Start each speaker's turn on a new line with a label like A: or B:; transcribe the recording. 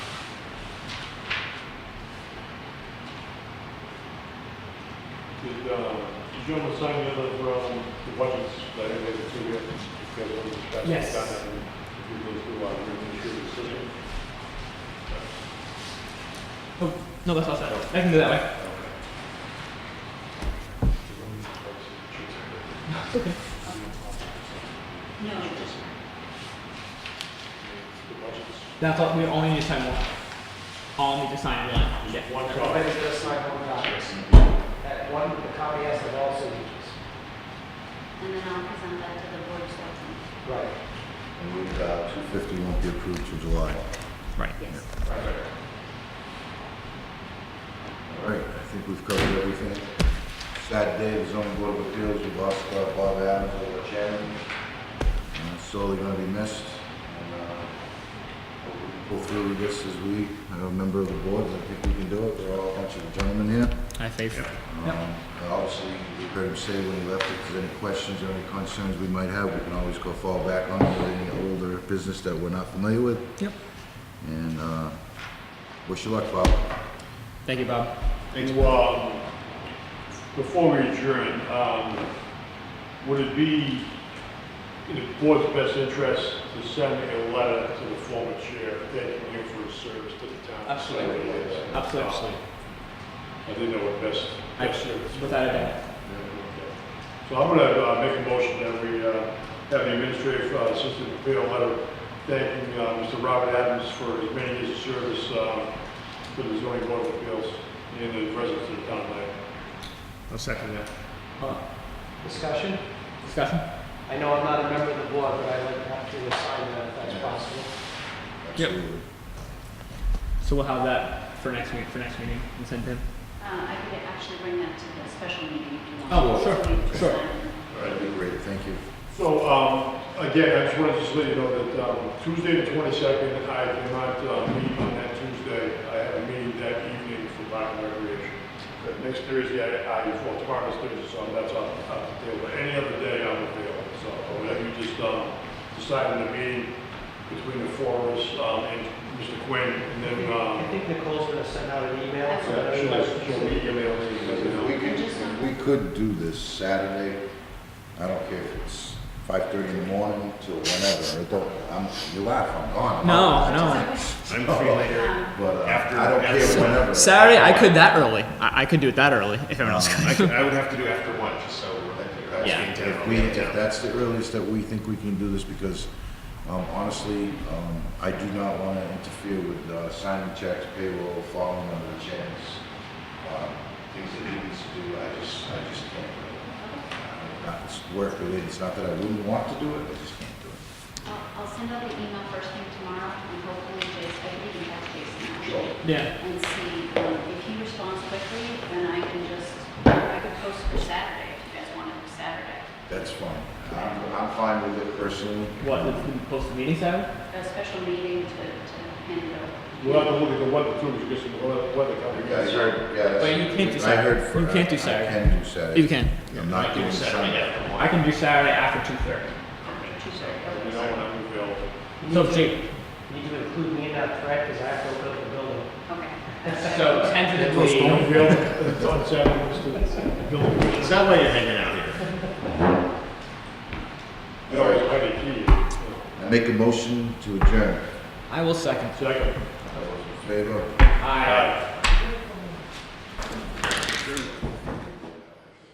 A: Did, uh, did you want to sign the other, um, the budgets that I gave to you? Because of the discussion
B: Yes.
A: done, and If you go through, uh, your initial decision.
B: Oh, no, that's all set. I can do that way. Okay.
C: No,
A: The budgets.
B: That's all. We only need to sign one. All need to sign one. Yeah.
A: One
D: But
A: copy.
D: it's just my own copies. That one, the copy has the all signatures.
C: and then I'll present that to the board of selectmen.
D: Right.
E: And we, uh, 250 won't be approved till July.
B: Right.
C: Yes.
D: Right.
E: All right, I think we've covered everything. Sad day, the zoning board of appeals, we lost uh, Bob Adams, our chairman. Uh, Sorely gonna be missed. And, uh, Pull through this as we, a member of the board, I think we can do it. We're all a bunch of gentlemen here.
B: I think. Yep.
E: Um, Obviously, you heard him say when he left, if there's any questions or any concerns we might have, we can always go fall back on with any older business that we're not familiar with.
B: Yep.
E: And uh, wish you luck, Bob.
B: Thank you, Bob.
A: Thanks, Bob. um, Before we adjourn, um, would it be in the board's best interest to send a letter to the former chair thanking him for his service to the town?
B: Absolutely. Absolutely.
A: I think that would best,
B: I-
A: best serve.
B: Without a doubt.
A: So I'm gonna uh, make a motion that we uh, have the administrative uh, assistant prepare a letter thanking uh, Mr. Robert Adams for his many years of service uh, to the zoning board of appeals and the residents of the town of Dayton.
F: I'll second that.
B: Uh,
D: Discussion?
B: discussion.
D: I know I'm not a member of the board, but I'd like to have to assign that if that's possible.
E: Absolutely.
B: So we'll have that for next week. For next meeting, and send to him.
C: Uh, I could actually bring that to the special meeting if you want.
B: Oh, well, sure,
C: So we can
B: sure.
C: sign it.
E: That'd be great, thank you.
A: So, um, again, I just wanted to just let you know that, um, Tuesday the twenty-second, I cannot, uh, meet on that Tuesday. I have a meeting that evening for Park and Recreation. But next Thursday, I, I, well, tomorrow's Thursday, so that's off, off the table. But any other day, I'm available, so whatever you just, um, decide in the meeting between the four of us, um, and Mr. Quinn, and then,
D: I
A: um,
D: think Nicole's gonna send out an email. so
A: yeah,
D: that
A: she'll,
D: everybody can
A: she'll
D: see.
A: meet you, mail me, let me
E: If we
A: know.
E: could, if we could do this Saturday, I don't care if it's five thirty in the morning till whenever, it don't, I'm, you laugh, I'm gone. I'm out.
B: no.
F: I'm free later.
C: Um,
E: But uh,
F: After-
E: I don't care
F: after-
E: whenever.
B: Saturday, I could that early. I, I could do it that early if everyone else could.
F: I, could- I would have to do after lunch, so uh, that's
B: Yeah.
F: being down.
E: If we, if that's the earliest that we think we can do this, because, um, honestly, um, I do not wanna interfere with, uh, signing checks, payroll, following under the checks. um, Things that he needs to do, I just, I just can't. Not, it's work related, it's not that I wouldn't want to do it, I just can't do it.
C: I'll, I'll send out the email first thing tomorrow, and hopefully Jason, I can contact Jason
E: Sure.
C: actually,
B: Yeah.
C: and see, um, if he responds quickly, then I can just, I could post for Saturday, if you guys want it for Saturday.
E: That's fine. I'm, I'm fine with it personally.
B: What? the- the- Post the meeting Saturday?
C: A special meeting to, to hand it over.
A: We'll have to look at the weather too, because the weather, weather coming.
E: Yeah, I heard, yeah. that's-
B: But you can't do
E: I
B: Saturday.
E: heard. for-
B: You can't do
E: I
B: Saturday.
E: can do Saturday.
B: You can.
E: I'm not doing Sunday.
B: I can do Saturday after two thirty.
C: Okay, two
A: So,
C: thirty.
A: you know, when I'm available.
B: So Jake.
D: You Need to include me in that threat, because I have to open up the building.
C: Okay.
B: So tentatively,
A: It's on Saturday, it's the the building.
F: It's not why you're hanging out here.
A: You know, it's quite a key.
E: I Make a motion to adjourn.
B: I will second.
A: Second.
E: All those in favor?
B: Aye.
A: Aye.